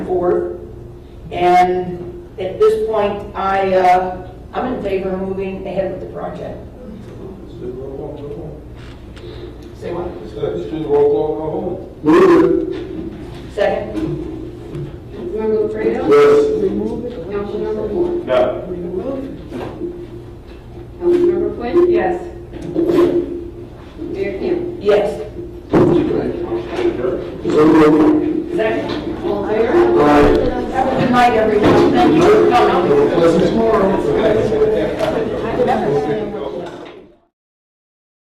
forth. And at this point, I, uh, I'm in favor of moving ahead with the project. Let's do the roll call, go home. Say what? Let's let's do the roll call, go home. Move it. Second? Councilmember Fredo? Yes. Remove it. Councilmember Moore? No. Remove. Councilmember Quinn? Yes. Mayor Campbell? Yes. So moved. Second? All in favor? Aye. Have a good night, everyone. Thank you for coming. Have a pleasant tomorrow.